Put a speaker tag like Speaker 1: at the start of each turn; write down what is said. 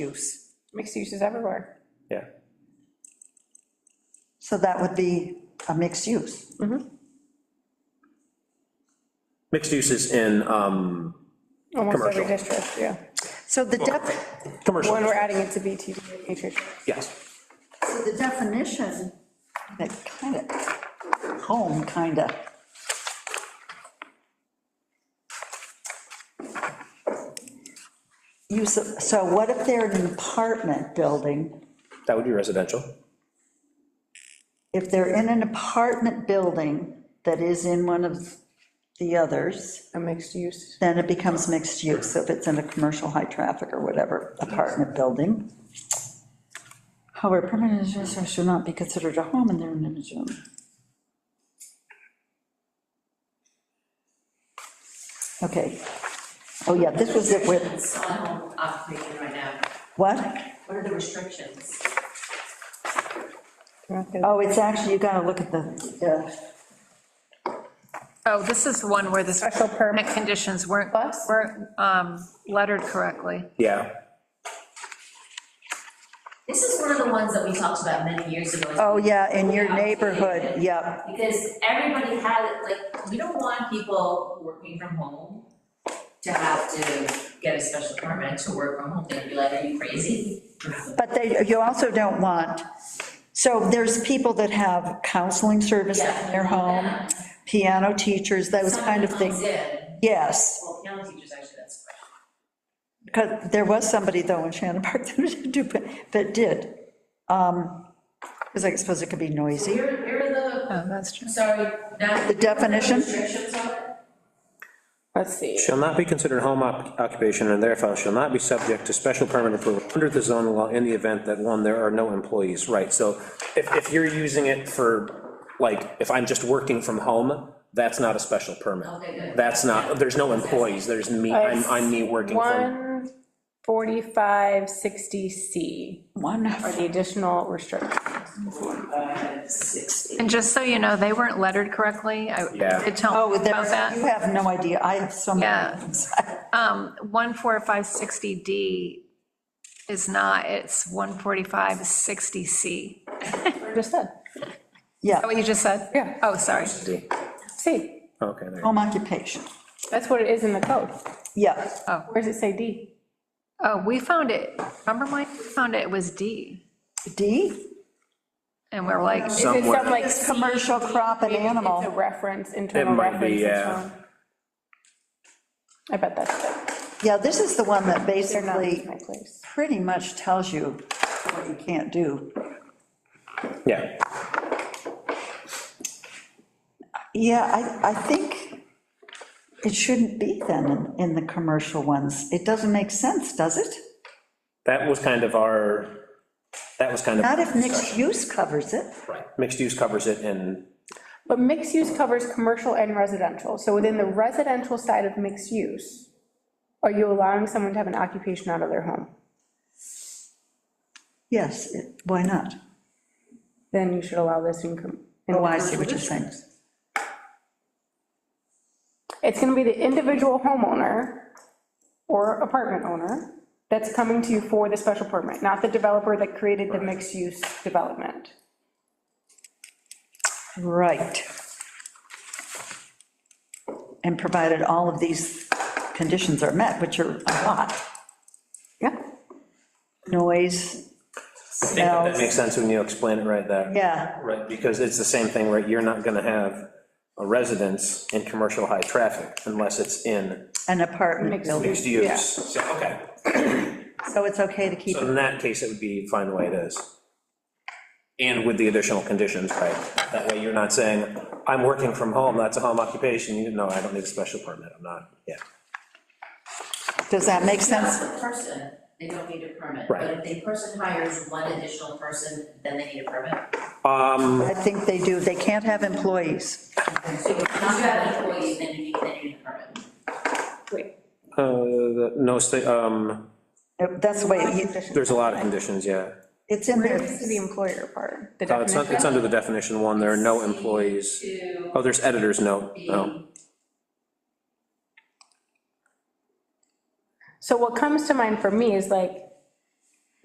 Speaker 1: use. Mixed use is everywhere.
Speaker 2: yeah.
Speaker 3: So that would be a mixed use.
Speaker 2: Mixed uses in, um,
Speaker 1: Almost every
Speaker 2: Commercial.
Speaker 1: district, yeah.
Speaker 3: So the def,
Speaker 2: commercial,
Speaker 1: When we're adding it to BTD, and nutrition.
Speaker 2: yes.
Speaker 3: so the definition, that kind of, home, kind of. Use, of- so what if they're in an apartment building?
Speaker 2: That would be residential.
Speaker 3: If they're in an apartment building that is in one of the others,
Speaker 1: a mixed use.
Speaker 3: then it becomes mixed use, if it's in a commercial, high-traffic or whatever apartment building. However, permanent residence should not be considered a home in their own zone. Okay. Oh, yeah, this was it with,
Speaker 4: It's on home occupation right now.
Speaker 3: what?
Speaker 4: What are the restrictions?
Speaker 3: Oh, it's actually, you gotta look at the,
Speaker 5: Oh, this is the one where the
Speaker 1: Special permit.
Speaker 5: permit conditions weren't,
Speaker 1: Plus?
Speaker 5: weren't um, lettered correctly.
Speaker 2: Yeah,
Speaker 4: This is one of the ones that we talked about many years ago.
Speaker 3: oh, yeah, in your neighborhood, yep.
Speaker 4: Because everybody had, like, we don't want people working from home to have to get a special permit to work from home. They'd be like, are you crazy?
Speaker 3: But they, you also don't want, so there's people that have counseling service in their home, piano teachers, those kind of
Speaker 4: Someone
Speaker 3: things.
Speaker 4: comes in,
Speaker 3: Yes,
Speaker 4: well, piano teachers, actually, that's great.
Speaker 3: because there was somebody though in Shannon Park that did, that did. Because I suppose it could be noisy.
Speaker 4: Where, where are
Speaker 5: Oh, that's true.
Speaker 4: the, sorry, now.
Speaker 3: The definition?
Speaker 4: Restrictions on it?
Speaker 1: Let's see.
Speaker 2: shall not be considered home oc- occupation and therefore shall not be subject to special permit approval under the zone law in the event that, one, there are no employees, right? So if, if you're using it for, like, if I'm just working from home, that's not a special permit.
Speaker 4: Okay, good.
Speaker 2: That's not, there's no employees, there's me, I'm, I'm me working from.
Speaker 1: One forty-five sixty C
Speaker 3: One,
Speaker 1: are the additional restrictions.
Speaker 5: And just so you know, they weren't lettered correctly.
Speaker 2: Yeah.
Speaker 5: I did tell
Speaker 3: oh,
Speaker 5: them
Speaker 3: there,
Speaker 5: about that.
Speaker 3: you have no idea, I have so many.
Speaker 5: Yeah.
Speaker 3: things.
Speaker 5: 14560D is not, it's 14560C. Is
Speaker 1: I Just said,
Speaker 3: Yeah,
Speaker 5: that what you just said?
Speaker 1: Yeah.
Speaker 5: Oh, sorry.
Speaker 1: C,
Speaker 2: Okay, there.
Speaker 3: home occupation,
Speaker 1: that's what it is in the code.
Speaker 3: yeah.
Speaker 1: Where does it say D?
Speaker 5: Oh, we found it, remember Mike, we found it was D,
Speaker 3: D,
Speaker 5: and we're like,
Speaker 1: Is it
Speaker 2: Somewhere.
Speaker 1: some like?
Speaker 3: It's commercial crop and
Speaker 1: Maybe it's
Speaker 3: animal.
Speaker 1: a reference, internal
Speaker 2: might
Speaker 1: reference.
Speaker 2: be, uh,
Speaker 1: it's
Speaker 2: yeah.
Speaker 1: wrong. I bet that's it.
Speaker 3: yeah, this is the one that
Speaker 1: They're not
Speaker 3: basically
Speaker 1: in my place.
Speaker 3: pretty much tells you what you can't do.
Speaker 2: Yeah,
Speaker 3: Yeah, I, I think it shouldn't be then in- in the commercial ones. It doesn't make sense, does it?
Speaker 2: that was kind of our, that was kind of.
Speaker 3: Not if mixed use covers it.
Speaker 2: Right. Mixed use covers it and,
Speaker 1: But mixed use covers commercial and residential, so within the residential side of mixed use, are you allowing someone to have an occupation out of their home?
Speaker 3: Yes, it- why not?
Speaker 1: Then you should allow this in. com- in
Speaker 3: Oh, I see what you're saying.
Speaker 1: It's gonna be the individual homeowner or apartment owner that's coming to you for the special permit, not the developer that created the mixed-use development.
Speaker 3: Right. And provided all of these conditions are met, which are a lot.
Speaker 1: Yeah.
Speaker 3: Noise,
Speaker 2: I think that
Speaker 3: smells,
Speaker 2: makes sense when you explain it right there.
Speaker 3: yeah,
Speaker 2: Right, because it's the same thing, right, you're not gonna have a residence in commercial high traffic unless it's in
Speaker 3: an apartment
Speaker 1: Mixed
Speaker 3: building.
Speaker 2: mixed use. So, okay,
Speaker 3: So it's okay to keep
Speaker 2: so
Speaker 3: it
Speaker 2: in that case, it would be fine the way it is. And with the additional conditions, right, that way you're not saying, I'm working from home, that's a home occupation, you know, I don't need a special permit, I'm not, yeah.
Speaker 3: Does that make sense?
Speaker 4: That's the person, they don't need a permit.
Speaker 2: Right.
Speaker 4: But if the person hires one additional person, then they need a permit.
Speaker 2: Um,
Speaker 3: I think they do. They can't have employees.
Speaker 4: So if you have an employee, then you need, then you need a permit.
Speaker 1: Wait,
Speaker 2: uh, no, sta- um,
Speaker 3: That's the way, it-
Speaker 2: there's a lot of conditions, yeah.
Speaker 3: it's in
Speaker 1: Where
Speaker 3: there.
Speaker 1: is the employer part? The
Speaker 2: Uh, It's, not- it's
Speaker 1: definition?
Speaker 2: under the definition one, there are no employees.
Speaker 4: To
Speaker 2: Oh, there's editor's note,
Speaker 4: be,
Speaker 2: oh.
Speaker 1: So what comes to mind for me is like,